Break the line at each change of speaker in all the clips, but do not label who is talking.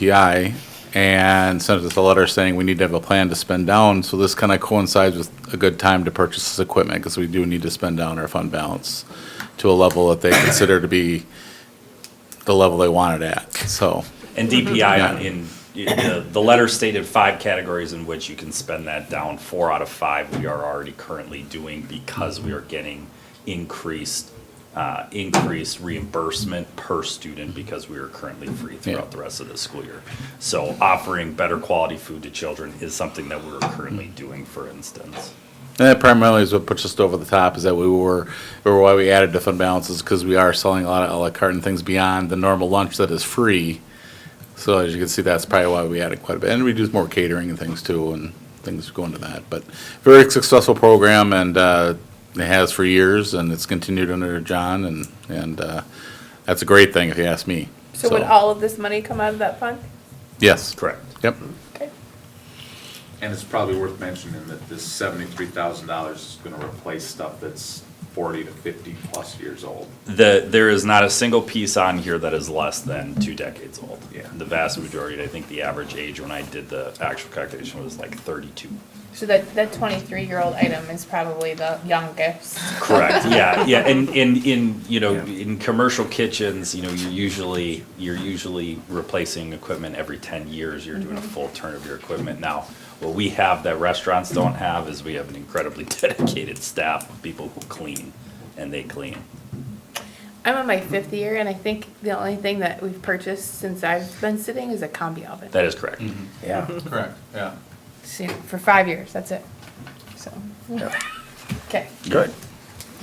DPI and sent us a letter saying we need to have a plan to spend down. So this kind of coincides with a good time to purchase this equipment because we do need to spend down our fund balance to a level that they consider to be the level they want it at. So,
And DPI on- in, the, the letter stated five categories in which you can spend that down. Four out of five we are already currently doing because we are getting increased, uh, increased reimbursement per student because we are currently free throughout the rest of the school year. So offering better quality food to children is something that we're currently doing, for instance.
and that primarily is what puts us over the top is that we were, or why we added to fund balances because we are selling a lot of a la carte and things beyond the normal lunch that is free. So as you can see, that's probably why we added quite a bit. And we do more catering and things too, and things go into that. But very successful program and uh, it has for years and it's continued under John and, and uh, that's a great thing if you ask me.
So would all of this money come out of that fund?
Yes.
Correct.
Yep.
Okay.
And it's probably worth mentioning that this seventy-three thousand dollars is gonna replace stuff that's forty to fifty-plus years old.
The, there is not a single piece on here that is less than two decades old.
Yeah.
The vast majority, I think the average age when I did the actual calculation was like thirty-two.
So that, that twenty-three-year-old item is probably the youngest.
Correct, yeah, yeah, and, and in, you know, in commercial kitchens, you know, you're usually, you're usually replacing equipment every ten years, you're doing a full turn of your equipment now. What we have that restaurants don't have is we have an incredibly dedicated staff of people who clean, and they clean.
I'm on my fifth year, and I think the only thing that we've purchased since I've been sitting is a combi oven.
That is correct.
Yeah.
Correct, yeah.
So, For five years, that's it. So, okay.
Good.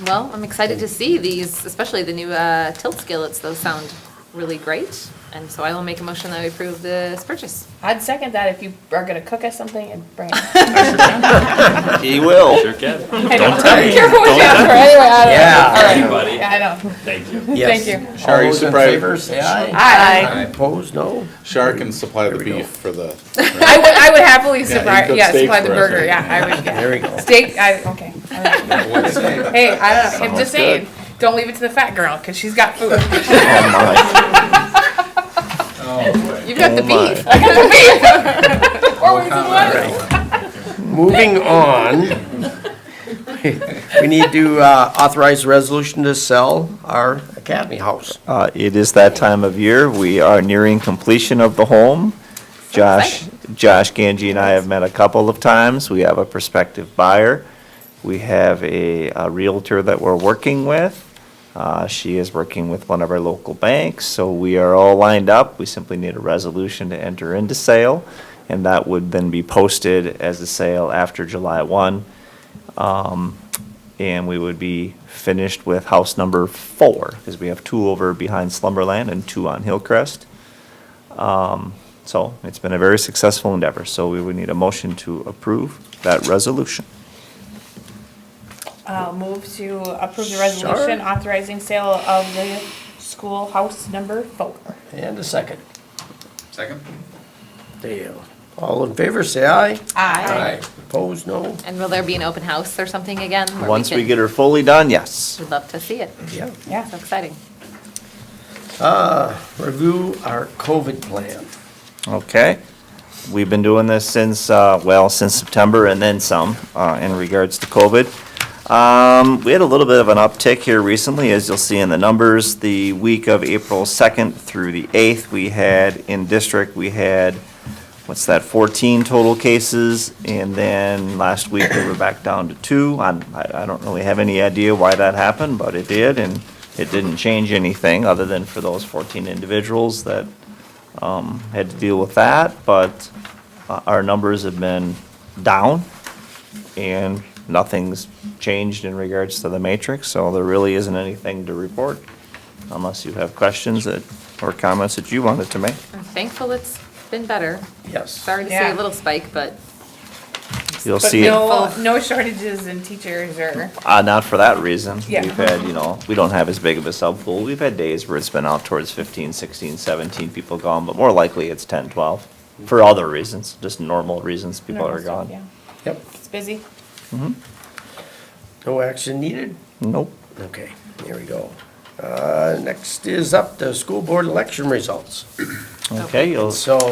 Well, I'm excited to see these, especially the new uh, tilt skillets. Those sound really great. And so I will make a motion that we approve this purchase.
I'd second that if you are gonna cook us something and bring it.
He will.
Sure can.
I don't
tell me.
Careful what you ask for, anyway, I don't.
Yeah.
All right.
Everybody.
Yeah, I know.
Thank you.
Yes.
Thank you.
All
Are you
those in
surprised?
favor, say aye.
I,
Opposed, no?
Shark can supply the
There we go.
beef for the,
I would, I would happily
you
surprise,
cook
yeah,
steak
supply the
for us,
burger,
right?
yeah, I would, yeah.
There we go.
Steak, I, okay. all right. Hey, I don't know, I'm just saying, don't leave it to the fat girl, because she's got food.
uh,
You've
Oh
got the beef.
I got the meat. Or we can let it.
Moving on. We need to uh, authorize a resolution to sell our Academy House.
Uh, It is that time of year. We are nearing completion of the home. Josh, Josh Ganji and I have met a couple of times. We have a prospective buyer. We have a a Realtor that we're working with. Uh, She is working with one of our local banks, so we are all lined up. We simply need a resolution to enter into sale, and that would then be posted as a sale after July 1. Um, and we would be finished with house number four, because we have two over behind Slumberland and two on Hillcrest. Um, So it's been a very successful endeavor, so we would need a motion to approve that resolution.
Uh, move to approve the resolution authorizing sale of the schoolhouse number four.
And a second.
Second?
Dale. All in favor, say aye.
Aye.
Opposed, no?
And will there be an open house or something again? where
Once we
can-
get her fully done, yes.
We'd love to see it.
Yeah.
Yeah.
So exciting.
Review our COVID plan.
Okay. We've been doing this since, uh, well, since September and then some uh, in regards to COVID. Um, We had a little bit of an uptick here recently, as you'll see in the numbers. The week of April 2nd through the 8th, we had in district, we had, what's that, 14 total cases? And then last week, we were back down to two. I'm- I I don't really have any idea why that happened, but it did, and it didn't change anything other than for those 14 individuals that um, had to deal with that, but uh, our numbers have been down, and nothing's changed in regards to the matrix, so there really isn't anything to report, unless you have questions that, or comments that you wanted to make.
I'm thankful it's been better.
Yes.
Sorry to see
Yeah.
a little spike, but
You'll
But
see, it-
no, no shortages in teachers or,
uh, not for that reason.
Yeah.
We've had, you know, we don't have as big of a sub pool. We've had days where it's been out towards 15, 16, 17 people gone, but more likely it's 10, 12, for other reasons, just normal reasons people
Normal
are
stuff,
gone.
yeah.
Yep.
it's busy.
No action needed?
Nope.
Okay, here we go. Uh, Next is up, the school board election results.
Okay, you'll
So